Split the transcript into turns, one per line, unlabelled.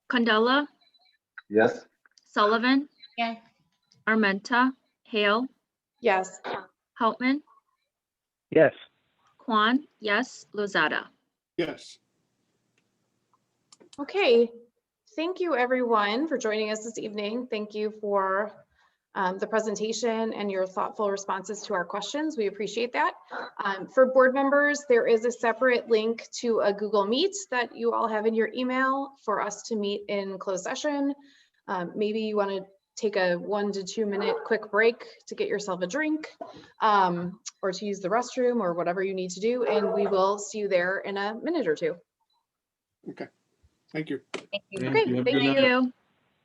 Condola,
Yes.
Sullivan,
Yes.
Armenta, Hale,
Yes.
Houtman,
yes,
Kwan, yes, Lozada.
yes.
Okay, thank you everyone for joining us this evening. Thank you for um, the presentation and your thoughtful responses to our questions. We appreciate that. Um, For board members, there is a separate link to a Google Meet that you all have in your email for us to meet in closed session. Um, Maybe you want to take a one to two minute quick break to get yourself a drink um, or to use the restroom or whatever you need to do, and we will see you there in a minute or two.
Thank you.
Thank you.
Okay, thank
Thank
you.
you.